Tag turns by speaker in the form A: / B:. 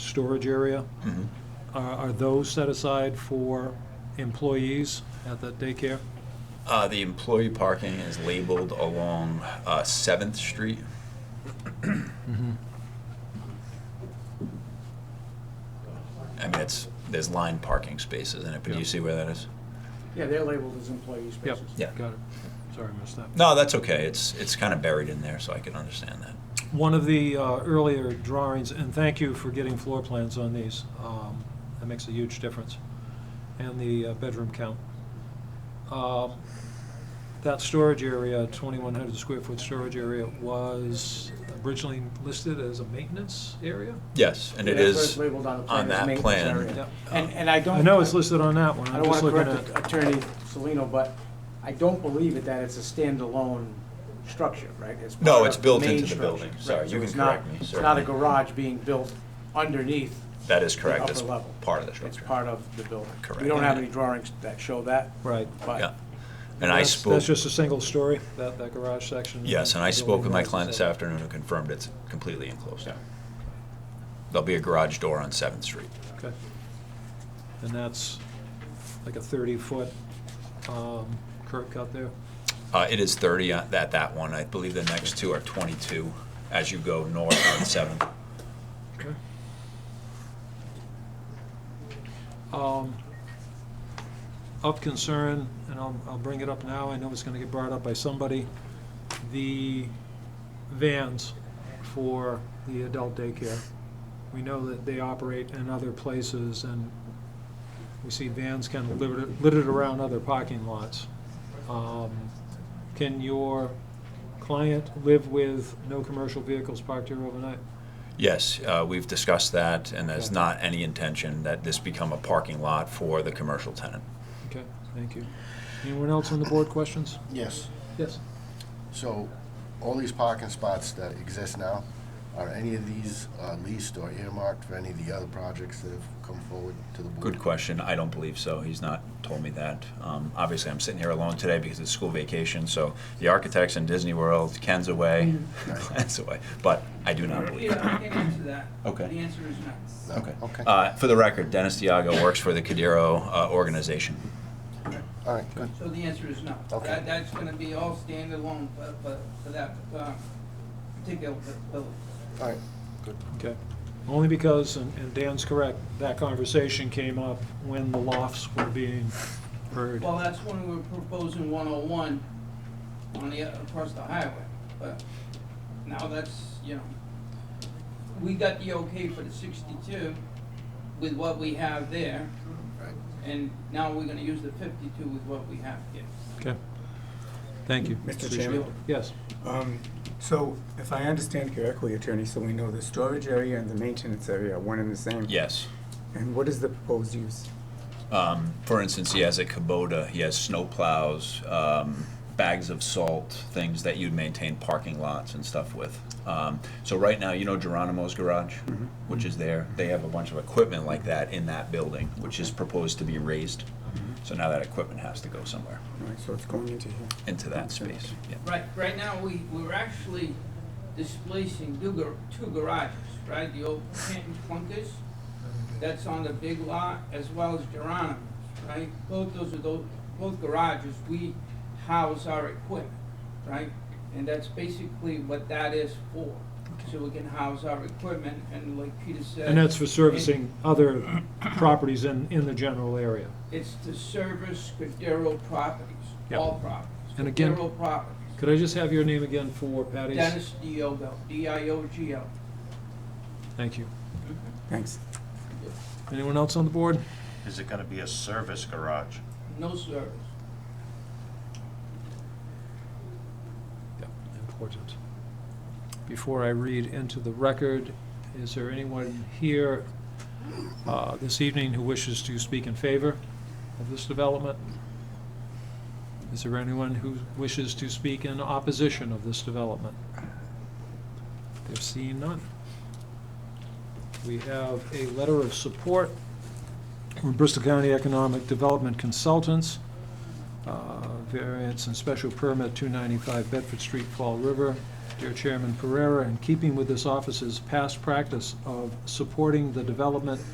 A: storage area,
B: Mm-hmm.
A: are are those set aside for employees at that daycare?
B: Uh, the employee parking is labeled along uh, 7th Street. I mean, it's, there's lined parking spaces in it, but do you
A: Yeah.
B: see where that is?
C: Yeah, they're labeled as employee
A: Yep.
C: spaces.
B: Yeah.
A: Got it. Sorry, I missed that.
B: No, that's okay. It's, it's kind of buried in there, so I can understand that.
A: One of the uh, earlier drawings, and thank you for getting floor plans on these, um, that makes a huge difference, and the uh, bedroom count. Um, That storage area, 2,100 square foot storage area, was originally listed as a maintenance area?
B: Yes, and it
C: Yeah, so it's
B: is
C: labeled on the plan
B: on
C: as
B: that
C: maintenance area.
B: plan. Uh,
A: Yep.
C: And, and I don't.
A: I know it's listed on that one,
C: I
A: I'm
C: don't
A: just
C: want to
A: looking at.
C: correct Attorney Salino, but I don't believe it that it's a standalone structure, right? It's
B: No,
C: part
B: it's
C: of
B: built
C: main
B: into the
C: structure,
B: building.
C: right?
B: Sorry,
C: So
B: you can
C: it's not-
B: correct me,
C: It's not a
B: certainly.
C: garage being built underneath
B: That is
C: the
B: correct.
C: upper
B: It's
C: level.
B: part of the
C: It's
B: structure.
C: part of the building.
B: Correct.
C: We don't have any drawings that show that,
A: Right.
B: Yeah.
C: but
B: And I
A: That's-
B: spoke.
A: That's just a single story, that, that garage section?
B: Yes, and I spoke with my client this
A: Building.
B: afternoon who confirmed it's completely enclosed. There'll be a garage door on 7th Street.
A: Okay. And that's like a 30-foot um, curb cut there?
B: Uh, It is 30 at that that one. I believe the next two are 22 as you go north on 7th.
A: Okay. Um, Of concern, and I'll, I'll bring it up now, I know it's gonna get brought up by somebody, the vans for the adult daycare. We know that they operate in other places, and we see vans kind of littered, littered around other parking lots. Um, Can your client live with no commercial vehicles parked here overnight?
B: Yes, uh, we've discussed that, and there's
A: Okay.
B: not any intention that this become a parking lot for the commercial tenant.
A: Okay, thank you. Anyone else on the board questions?
D: Yes,
A: Yes.
D: so all these parking spots that exist now, are any of these uh, leased or earmarked for any of the other projects that have come forward to the board?
B: Good question. I don't believe so. He's not told me that. Um, Obviously, I'm sitting here alone today because it's school vacation, so the architect's in Disney World, Ken's away, Ken's away, but I do not believe
E: Yeah,
B: that.
E: I can answer that.
B: Okay.
E: The answer is no.
D: No?
B: Okay.
D: Okay, all
B: Uh, For the record, Dennis Diago works for the Cadero uh, organization.
D: right, good.
E: So the answer is no.
D: Okay.
E: That, that's gonna be all standalone for, for, for that, uh, particular building.
D: All right,
A: Okay. Only because, and and Dan's correct, that conversation came up when the lofts were being heard.
E: Well, that's when we were proposing one oh one on the, across the highway, but now that's, you know, we got the okay for the sixty-two with what we have there,
D: Right.
E: and now we're gonna use the fifty-two with what we have here.
A: Okay. Thank you.
F: Mr.
A: Appreciate
F: Chairman?
A: it. Yes.
F: Um, So if I understand correctly, Attorney Salino, the storage area and the maintenance area are one and the same?
B: Yes.
F: And what is the proposed use?
B: Um, for instance, he has a Kubota, he has snow plows, um, bags of salt, things that you'd maintain parking lots and stuff with. Um, so right now, you know Geronimo's garage, which is there. They have a bunch of equipment like that in that building, which is proposed to be raised. So now that equipment has to go somewhere
F: All right, so it's going into here.
B: into that space. Yeah.
E: Right, right now, we, we're actually displacing two gar- two garages, right? The old Canton Plunkers, that's on the big lot, as well as Geronimo's, right? Both those are those, both garages, we house our equipment, right? And that's basically what that is for, so we can house our equipment, and like Peter said.
A: And that's for servicing other properties in, in the general area.
E: It's to service Cordero properties,
A: Yep.
E: all properties.
A: And again-
E: Cordero properties.
A: Could I just have your name again for Patty's?
E: Dennis Diogo, D-I-O-G-O.
A: Thank you.
F: Thanks.
A: Anyone else on the board?
G: Is it gonna be a service garage?
E: No service.
A: Yep, important. Before I read into the record, is there anyone here uh, this evening who wishes to speak in favor of this development? Is there anyone who wishes to speak in opposition of this development? There seeing none. We have a letter of support from Bristol County Economic Development Consultants uh, variance and special permit 295 Bedford Street, Fall River. Dear Chairman Pereira, in keeping with this office's past practice of supporting the development